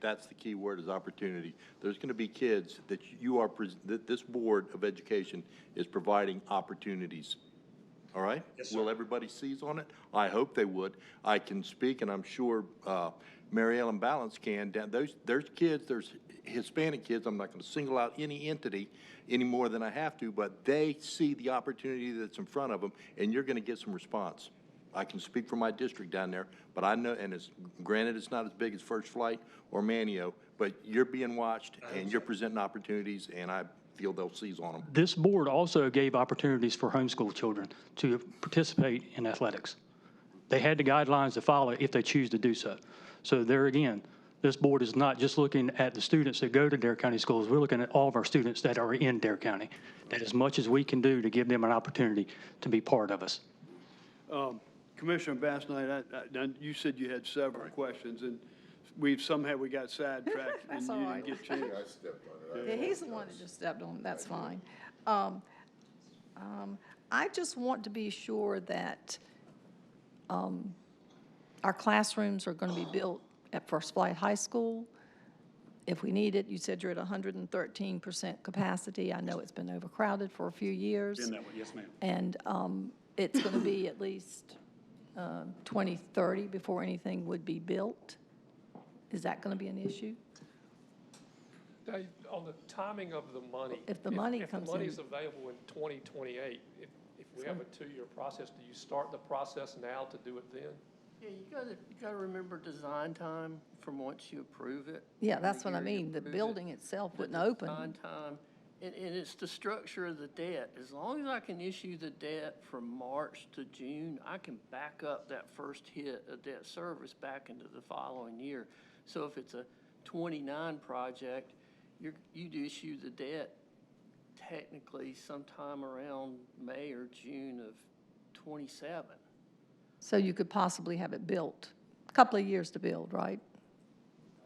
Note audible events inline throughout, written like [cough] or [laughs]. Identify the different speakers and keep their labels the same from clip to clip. Speaker 1: that's the key word is opportunity. There's going to be kids that you are, pres- that this Board of Education is providing opportunities. All right?
Speaker 2: Yes, sir.
Speaker 1: Will everybody seize on it? I hope they would. I can speak, and I'm sure uh, Mary Ellen Balance can. Down- Those, there's kids, there's Hispanic kids, I'm not going to single out any entity any more than I have to, but they see the opportunity that's in front of them, and you're going to get some response. I can speak for my district down there, but I know, and it's, granted, it's not as big as First Flight or Manio, but you're being watched, and you're presenting opportunities, and I feel they'll seize on them.
Speaker 3: This board also gave opportunities for homeschool children to participate in athletics. They had the guidelines to follow if they choose to do so. So there again, this board is not just looking at the students that go to Dare County schools, we're looking at all of our students that are in Dare County, that as much as we can do to give them an opportunity to be part of us.
Speaker 4: Commissioner Bass Knight, I- I- now, you said you had several questions, and we've, somehow we got sidetracked and
Speaker 5: [laughs] That's
Speaker 4: you
Speaker 5: all
Speaker 4: didn't
Speaker 5: right.
Speaker 4: get a chance.
Speaker 5: Yeah, he's the one that just stepped on, that's fine. Um, um, I just want to be sure that um, our classrooms are going to be built at First Flight High School. If we need it, you said you're at 113% capacity. I know it's been overcrowded for a few years.
Speaker 2: In that way, yes, ma'am.
Speaker 5: And um, it's going to be at least um, 2030 before anything would be built. Is that going to be an issue?
Speaker 6: Dave, on the timing of the money.
Speaker 5: If the money comes
Speaker 6: If the money's
Speaker 5: in.
Speaker 6: available in 2028, if, if we have a two-year process, do you start the process now to do it then?
Speaker 7: Yeah, you gotta, you gotta remember design time from once you approve it.
Speaker 5: Yeah,
Speaker 7: the
Speaker 5: that's what I
Speaker 7: year you
Speaker 5: mean. The
Speaker 7: approve it,
Speaker 5: building itself
Speaker 7: the
Speaker 5: wouldn't open.
Speaker 7: Design time, and, and it's the structure of the debt. As long as I can issue the debt from March to June, I can back up that first hit of debt service back into the following year. So if it's a twenty-nine project, you're, you'd issue the debt technically sometime around May or June of twenty-seven.
Speaker 5: So you could possibly have it built, a couple of years to build, right?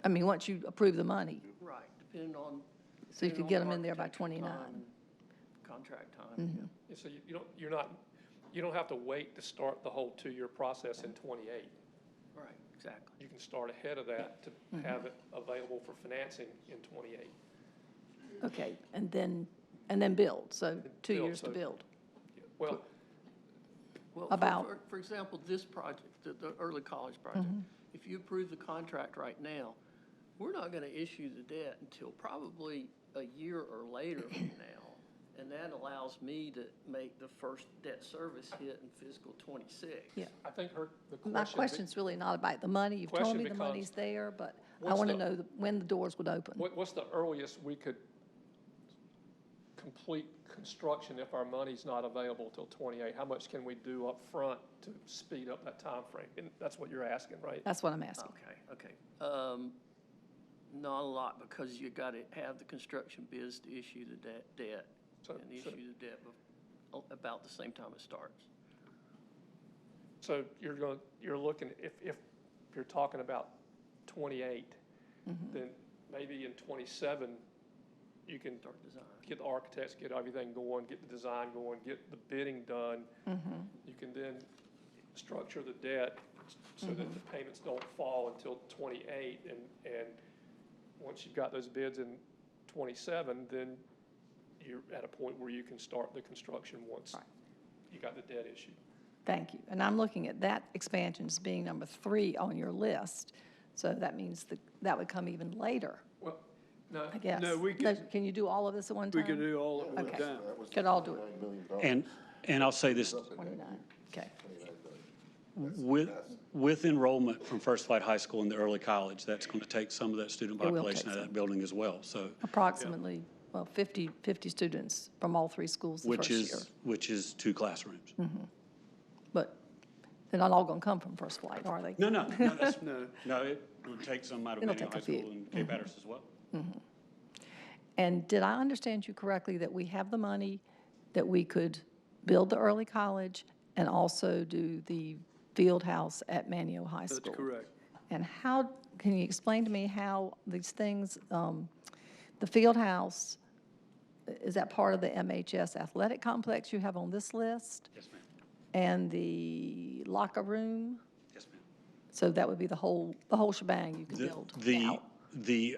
Speaker 5: I mean, once you approve the money.
Speaker 7: Right, depending on.
Speaker 5: So you
Speaker 7: depending
Speaker 5: could
Speaker 7: on
Speaker 5: get 'em in there by Mm-hmm.
Speaker 7: architectural time
Speaker 5: 29.
Speaker 7: and Contract time.
Speaker 6: Yeah, So you, you don't, you're not, you don't have to wait to start the whole two-year process in 28.
Speaker 7: yeah. Right, exactly.
Speaker 6: You can start ahead of that to
Speaker 5: Mm-hmm.
Speaker 6: have it available for financing in 28.
Speaker 5: Okay, and then, and then build, so two
Speaker 6: Build,
Speaker 5: years to
Speaker 6: so-
Speaker 5: build.
Speaker 6: Well,
Speaker 7: Well, for-
Speaker 5: About- Mm-hmm.
Speaker 7: for- For example, this project, the, the early college project, if you approve the contract right now, we're not gonna issue the debt until probably a year or later
Speaker 5: [coughs]
Speaker 7: from now. And that allows me to make the first debt service hit in fiscal twenty-six.
Speaker 5: Yeah.
Speaker 6: I think her, the question.
Speaker 5: My
Speaker 6: be-
Speaker 5: question's really not about the money. You've told
Speaker 6: Question
Speaker 5: me the
Speaker 6: becomes,
Speaker 5: money's there, but I
Speaker 6: what's
Speaker 5: want to
Speaker 6: the-
Speaker 5: know the- when the doors would open.
Speaker 6: What, what's the earliest we could complete construction if our money's not available till twenty-eight? How much can we do up front to speed up that timeframe? And that's what you're asking, right?
Speaker 5: That's what I'm asking.
Speaker 7: Okay, okay. Um, Not a lot, because you gotta have the construction biz to issue the debt, debt,
Speaker 6: So-
Speaker 7: and
Speaker 6: so-
Speaker 7: issue the debt bef- about the same time it starts.
Speaker 6: So you're going, you're looking, if, if you're talking about twenty-eight,
Speaker 7: Mm-hmm.
Speaker 6: then maybe in twenty-seven, you can
Speaker 7: Start design.
Speaker 6: get the architects, get everything going, get the design going, get the bidding done.
Speaker 5: Mm-hmm.
Speaker 6: You can then structure the debt so
Speaker 5: Mm-hmm.
Speaker 6: that the payments don't fall until twenty-eight and, and once you've got those bids in twenty-seven, then you're at a point where you can start the construction once
Speaker 5: Right.
Speaker 6: you got the debt issued.
Speaker 5: Thank you. And I'm looking at that expansion as being number three on your list. So that means that, that would come even later,
Speaker 6: Well, no,
Speaker 5: I guess. um,
Speaker 4: No, we could-
Speaker 5: Can you do all of this at one time?
Speaker 4: We could do all at one
Speaker 5: Okay.
Speaker 4: time.
Speaker 5: Could all do it,
Speaker 2: And, and I'll say this,
Speaker 5: 29, okay.
Speaker 2: with, with enrollment from First Flight High School in the early college, that's going to take some of that student
Speaker 5: It will take
Speaker 2: population out of
Speaker 5: some.
Speaker 2: that building as well, so,
Speaker 5: Approximately, well, 50, 50 students from all three schools the first
Speaker 2: which
Speaker 5: year. Hmm.
Speaker 2: is, which is two classrooms.
Speaker 5: But they're not all going to come from First Flight, are they?
Speaker 2: No, no, no, that's,
Speaker 4: No.
Speaker 2: no, it would take some out of
Speaker 5: It'll take
Speaker 2: Benning
Speaker 5: a
Speaker 2: High
Speaker 5: few.
Speaker 2: School and Cape Hatteras as well.
Speaker 5: And did I understand you correctly that we have the money that we could build the early college and also do the field house at Manio High School?
Speaker 4: That's correct.
Speaker 5: And how, can you explain to me how these things, um, the field house, i- is that part of the MHS athletic complex you have on this list?
Speaker 2: Yes, ma'am.
Speaker 5: And the locker room?
Speaker 2: Yes, ma'am.
Speaker 5: So that would be the whole, the whole shebang you could
Speaker 2: The-
Speaker 5: build
Speaker 2: The,
Speaker 5: out?
Speaker 2: the